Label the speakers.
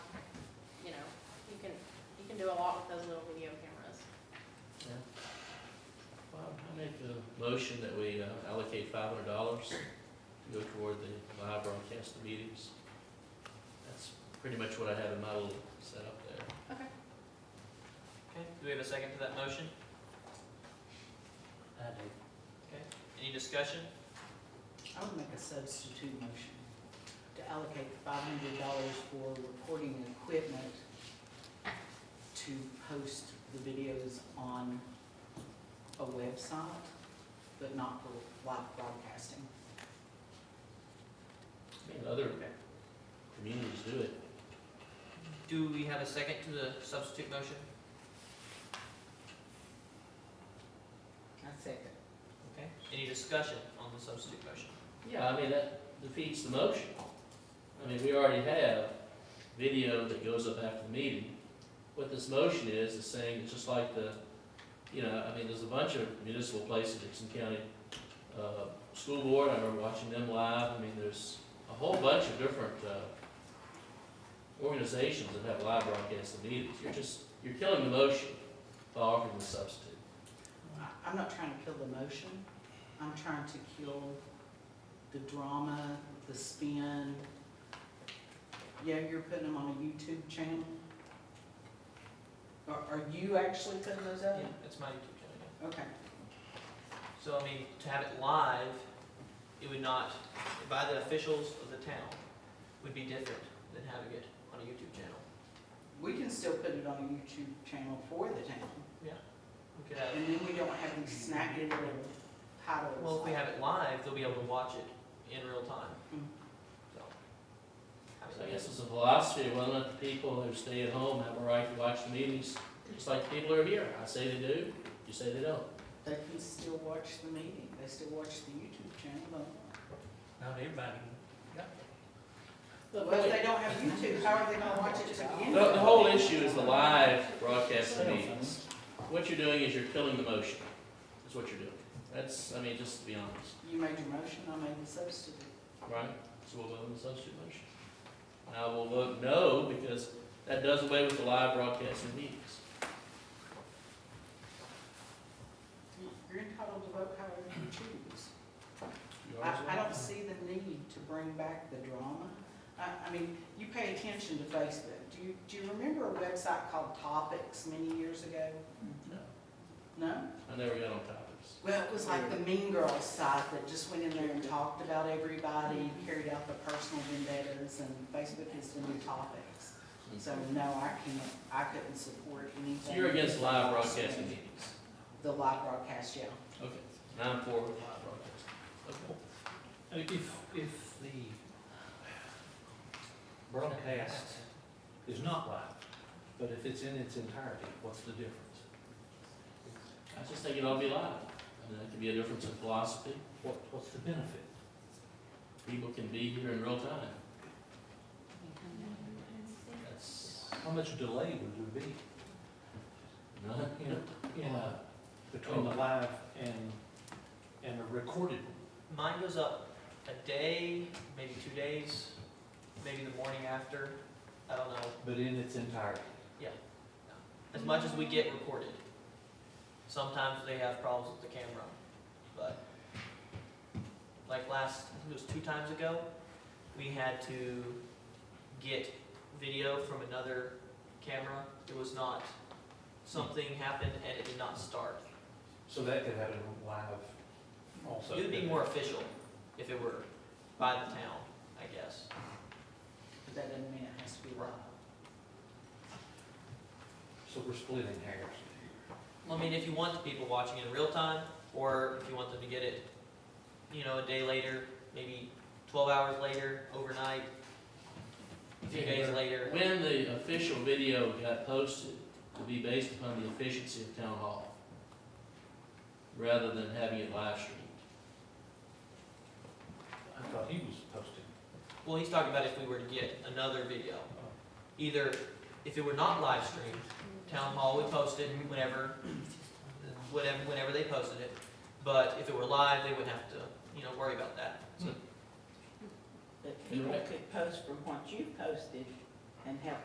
Speaker 1: a lot with those little video cameras.
Speaker 2: Well, I make a motion that we uh, allocate five hundred dollars to go toward the live broadcast of meetings. That's pretty much what I have in my little setup there.
Speaker 3: Okay, do we have a second to that motion?
Speaker 4: I do.
Speaker 3: Okay, any discussion?
Speaker 4: I would make a substitute motion to allocate five hundred dollars for recording equipment to post the videos on a website, but not for live broadcasting.
Speaker 2: I mean, Other communities do it.
Speaker 3: Do we have a second to the substitute motion?
Speaker 4: I second.
Speaker 3: Okay, any discussion on the substitute motion?
Speaker 2: Yeah, I mean, that defeats the motion. I mean, we already have video that goes up after the meeting. What this motion is, is saying, it's just like the, you know, I mean, there's a bunch of municipal places, Dixon County, uh, school board, I remember watching them live, I mean, there's a whole bunch of different, uh, organizations that have live broadcast of meetings, you're just, you're killing the motion by offering the substitute.
Speaker 4: I- I'm not trying to kill the motion, I'm trying to kill the drama, the spin. Yeah, you're putting them on a YouTube channel? Are, are you actually putting those up?
Speaker 3: Yeah, that's my YouTube channel, yeah.
Speaker 4: Okay,
Speaker 3: So, I mean, to have it live, it would not, by the officials of the town, would be different than having it on a YouTube channel.
Speaker 4: we can still put it on a YouTube channel for the town,
Speaker 3: We could have,
Speaker 4: and then we don't have these snacky little titles.
Speaker 3: well, if we have it live, they'll be able to watch it in real time,
Speaker 4: Mm.
Speaker 3: so.
Speaker 2: So I guess it's a philosophy, of whether or not the people who stay at home have a right to watch the meetings, just like the people who are here. I say they do, you say they don't.
Speaker 4: They can still watch the meeting, they still watch the YouTube channel, but,
Speaker 3: Not everybody.
Speaker 2: The,
Speaker 4: well, if they don't have YouTube, how are they gonna watch it to begin with?
Speaker 2: the whole issue is the live broadcast of meetings. What you're doing is you're killing the motion, is what you're doing. That's, I mean, just to be honest,
Speaker 4: You made your motion, I made the substitute.
Speaker 2: right? So we'll vote on the substitute motion. And I will vote no, because that does away with the live broadcast of meetings.
Speaker 4: You're entitled to vote however you choose.
Speaker 2: You are as
Speaker 4: I, I
Speaker 2: well.
Speaker 4: don't see the need to bring back the drama. I, I mean, you pay attention to Facebook. Do you, do you remember a website called Topics many years ago?
Speaker 2: No,
Speaker 4: No?
Speaker 2: I never got on topics.
Speaker 4: Well, it was like the Mean Girls site that just went in there and talked about everybody, carried out the personal vendettas, and Facebook is the new Topics. So no, I can't, I couldn't support
Speaker 2: So
Speaker 4: anything.
Speaker 2: you're against live broadcast of meetings?
Speaker 4: The live broadcast, yeah.
Speaker 2: Okay, nine four with live broadcast. Okay.
Speaker 5: Uh, If, if the broadcast is not live, but if it's in its entirety, what's the difference?
Speaker 2: I just think it ought to be live. I mean, that could be a difference in philosophy.
Speaker 5: What, what's the benefit?
Speaker 2: People can be here in real time. That's
Speaker 5: How much delay would there be,
Speaker 2: none,
Speaker 5: you know, in a, between the live and, and a recorded?
Speaker 3: Mine goes up a day, maybe two days, maybe the morning after, I don't know,
Speaker 5: But in its entirety.
Speaker 3: as much as we get recorded. Sometimes they have problems with the camera, but like last, I think it was two times ago, we had to get video from another camera. It was not, something happened and it did not start.
Speaker 5: So that could happen live also.
Speaker 3: It would be
Speaker 5: couldn't
Speaker 3: more
Speaker 5: it?
Speaker 3: official if it were by the town, I guess.
Speaker 4: But that doesn't mean it has to be live.
Speaker 5: So we're splitting hairs.
Speaker 3: Well, I mean, if you want the people watching in real time, or if you want them to get it, you know, a day later, maybe twelve hours later, overnight, a few days later.
Speaker 2: When the official video got posted, it would be based upon the efficiency of town hall, rather than having it live streamed.
Speaker 5: I thought he was posting.
Speaker 3: Well, he's talking about if we were to get another video. Either, if it were not live streamed, town hall would post it whenever, whenever, whenever they posted it. But if it were live, they wouldn't have to, you know, worry about that.
Speaker 6: But
Speaker 2: You're
Speaker 6: people
Speaker 2: right.
Speaker 6: could post from what you posted and have